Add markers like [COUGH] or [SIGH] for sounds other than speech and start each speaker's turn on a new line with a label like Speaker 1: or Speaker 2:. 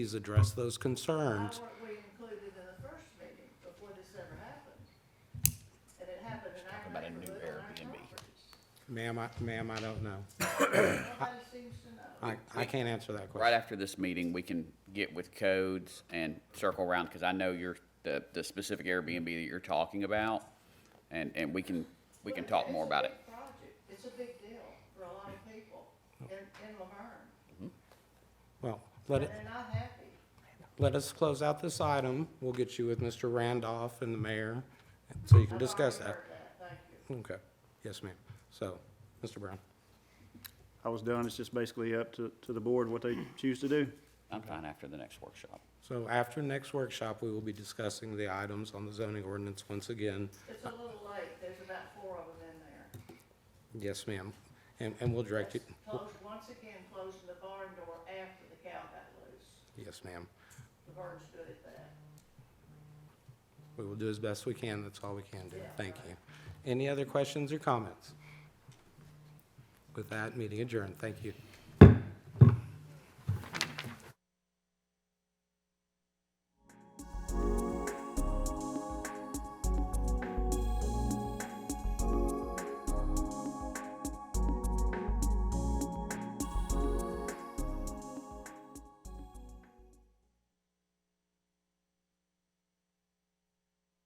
Speaker 1: Please address those
Speaker 2: Why
Speaker 1: concerns.
Speaker 2: weren't we included in the first meeting before this ever happened? And it happened in our
Speaker 3: about a new
Speaker 2: neighborhood, on our
Speaker 3: Airbnb.
Speaker 1: [COUGHS]
Speaker 2: properties.
Speaker 1: Ma'am, I, ma'am, I don't know.
Speaker 2: Nobody seems to know.
Speaker 1: I, I can't answer that
Speaker 3: Right
Speaker 1: question.
Speaker 3: after this meeting, we can get with codes and circle around, because I know you're, the, the specific Airbnb that you're talking about, and, and we can, we can
Speaker 2: But
Speaker 3: talk
Speaker 2: it's
Speaker 3: more
Speaker 2: a
Speaker 3: about it.
Speaker 2: big project. It's a big deal for a lot of people in, in Laverne,
Speaker 1: Well, let
Speaker 2: and
Speaker 1: it,
Speaker 2: they're not happy.
Speaker 1: let us close out this item. We'll get you with Mr. Randolph and the mayor, so you can
Speaker 2: I've
Speaker 1: discuss
Speaker 2: already
Speaker 1: that.
Speaker 2: heard Thank you.
Speaker 1: Okay, yes, ma'am. So, Mr. Brown.
Speaker 4: I was done. It's just basically up to, to the board what they choose to do.
Speaker 3: I'm fine after the next workshop.
Speaker 1: So after next workshop, we will be discussing the items on the zoning ordinance once again.
Speaker 2: It's a little late. There's about four of them in there.
Speaker 1: Yes, ma'am. And, and we'll direct you,
Speaker 2: That's Close, once again, closing the barn door after the cow got loose.
Speaker 1: yes, ma'am.
Speaker 2: Laverne's good at that.
Speaker 1: We will do as best we can. That's all we can do.
Speaker 2: Yeah.
Speaker 1: Thank you. Any other questions or comments? With that, meeting adjourned. Thank you.